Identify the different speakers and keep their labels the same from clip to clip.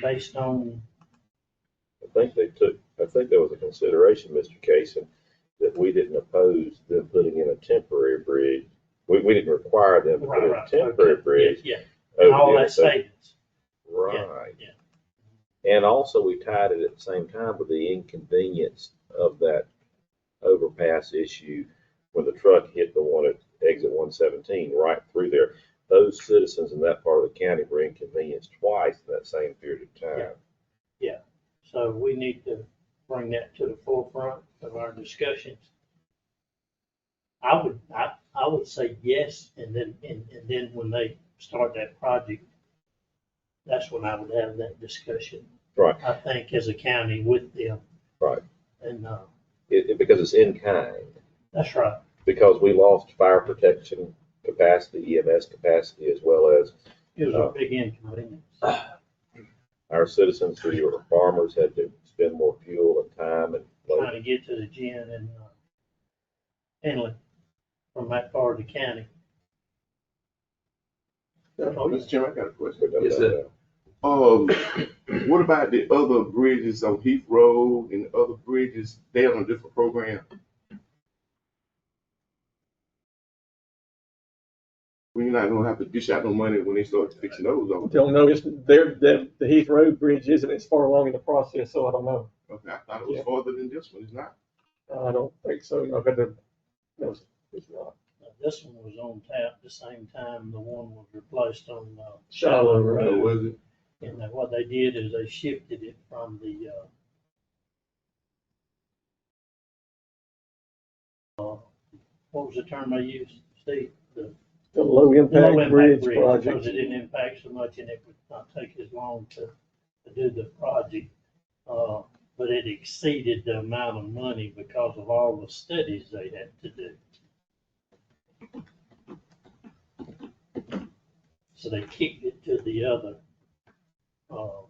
Speaker 1: based on,
Speaker 2: I think they took, I think there was a consideration, Mr. Casey, that we didn't oppose them putting in a temporary bridge. We, we didn't require them to put
Speaker 1: Right,
Speaker 2: in
Speaker 1: right,
Speaker 2: a
Speaker 1: okay.
Speaker 2: temporary bridge. Oh,
Speaker 1: yeah,
Speaker 2: over
Speaker 1: and all
Speaker 2: the
Speaker 1: that
Speaker 2: intersect-
Speaker 1: savings.
Speaker 2: Right.
Speaker 1: yeah.
Speaker 2: And also, we tied it at the same time with the inconvenience of that overpass issue when the truck hit the one at exit one seventeen right through there. Those citizens in that part of the county were inconvenienced twice in that same period of time.
Speaker 1: So we need to bring that to the forefront of our discussions. I would, I, I would say yes, and then, and, and then when they start that project, that's when I would have that discussion,
Speaker 2: Right.
Speaker 1: I think, as a county with them.
Speaker 2: Right.
Speaker 1: And, uh,
Speaker 2: It, it- because it's in kind,
Speaker 1: that's right,
Speaker 2: because we lost fire protection capacity, EMS capacity, as well as
Speaker 1: it was a big inconvenience.
Speaker 2: our citizens who were farmers had to spend more fuel and time and.
Speaker 1: trying to get to the gym and uh, inlet from that part of the county.
Speaker 3: Oh, Mr. Chairman, I got a question.
Speaker 4: Yes, sir.
Speaker 3: Um, what about the other bridges on Heath Road and the other bridges? They on a different program? We're not gonna have to dish out no money when they start fixing those, though.
Speaker 5: Don't know, it's, there, the, the Heath Road Bridge isn't as far along in the process, so I don't know.
Speaker 3: Okay, I thought it was
Speaker 5: Yeah.
Speaker 3: farther than this one, it's not.
Speaker 5: I don't think so, no, but the, no, it's- it's not.
Speaker 1: Now, This one was on tap the same time the one was replaced on uh,
Speaker 5: Shallow
Speaker 1: Shallow
Speaker 5: Road.
Speaker 3: Oh,
Speaker 1: Road.
Speaker 3: was it?
Speaker 1: And then what they did is they shifted it from the uh, uh, what was the term they used, Steve? The
Speaker 5: The low
Speaker 1: low
Speaker 5: impact bridge
Speaker 1: impact bridge,
Speaker 5: project.
Speaker 1: because it didn't impact so much and it would not take as long to, to do the project. Uh, but it exceeded the amount of money because of all the studies they had to do. So they kicked it to the other, uh,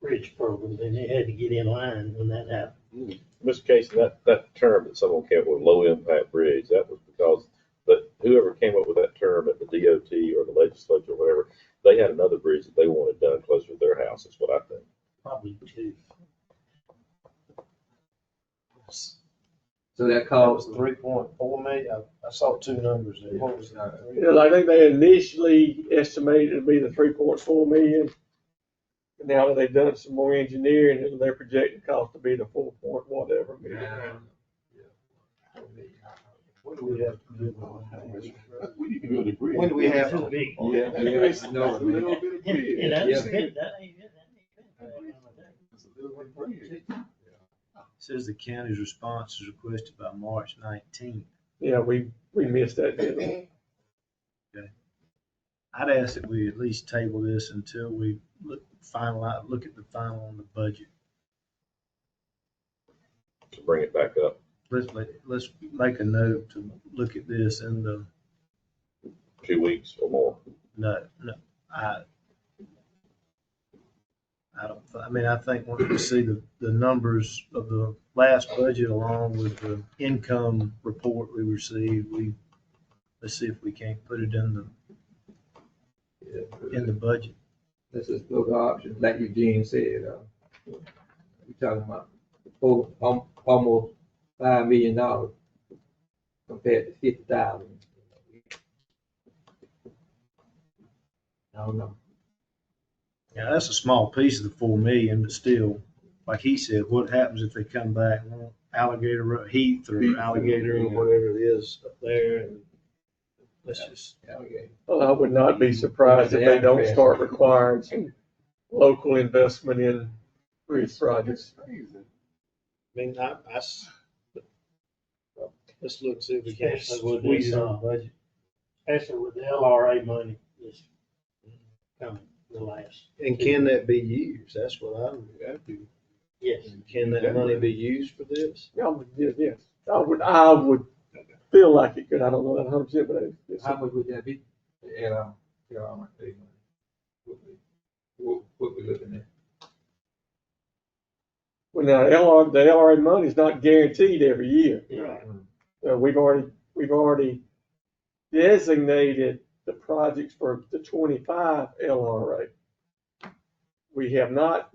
Speaker 1: bridge program, and they had to get in line when that happened.
Speaker 2: Mr. Casey, that, that term that someone came up with, low impact bridge, that was because, but whoever came up with that term at the DOT or the legislature or whatever, they had another bridge that they wanted done closer to their house, is what I think.
Speaker 1: Probably two,
Speaker 4: So that
Speaker 6: That was
Speaker 4: cost,
Speaker 6: three point four million. I- I saw two numbers there. What was that?
Speaker 5: Yeah, I think they initially estimated it'd be the three point four million. Now that they've done some more engineering, they're projecting cost to be the four point whatever. million.
Speaker 6: What do we have to do?
Speaker 3: Well, you can go to the bridge.
Speaker 6: When do we have
Speaker 1: two
Speaker 6: to?
Speaker 1: big.
Speaker 3: Yeah.
Speaker 4: Yeah, it's
Speaker 3: that's
Speaker 4: no-
Speaker 3: a little bit of bridge.
Speaker 1: And that was,
Speaker 4: Yeah.
Speaker 1: that ain't, that ain't bad.
Speaker 3: That's a little bit of bridge.
Speaker 7: Says the county's response is requested by March nineteenth.
Speaker 5: Yeah, we, we missed that deadline.
Speaker 7: I'd ask that we at least table this until we look, finalize, look at the final on the budget.
Speaker 2: To bring it back up
Speaker 7: Let's, let- let's make a note to look at this in the,
Speaker 2: two weeks or more.
Speaker 7: no, no, I, I don't, I mean, I think once we see the, the numbers of the last budget along with the income report we received, we, let's see if we can't put it in the, in the budget.
Speaker 4: let's explore the options, like Eugene said, uh, we're talking about four, al- almost five million dollars compared to fifty thousand. I don't know.
Speaker 7: Yeah, that's a small piece of the four million, but still, like he said, what happens if they come back, and want alligator ro- heath
Speaker 3: Heath.
Speaker 7: or alligator or whatever it is up there and let's just,
Speaker 4: Okay.
Speaker 5: Well, I would not be surprised if they don't start requiring some local investment in bridge projects.
Speaker 3: That's crazy.
Speaker 7: I mean, I, I s- Let's look, see if we can
Speaker 1: Especially with
Speaker 7: squeeze
Speaker 1: this,
Speaker 7: it
Speaker 1: uh,
Speaker 7: on budget.
Speaker 1: especially with the LRA money that's coming, the last,
Speaker 7: And can that be used? That's what I'm, I do.
Speaker 1: yes.
Speaker 7: Can that money be used for this?
Speaker 5: Yeah, I would, yeah, yes, I would, I would feel like it could, I don't know that hundred percent, but it's- it's,
Speaker 4: How much would that be? And, um, you know, I'm gonna tell you, what we- What, what we looking at?
Speaker 5: when the LR, the LRA money is not guaranteed every year.
Speaker 1: Right.
Speaker 5: So we've already, we've already designated the projects for the twenty-five LRA. we have not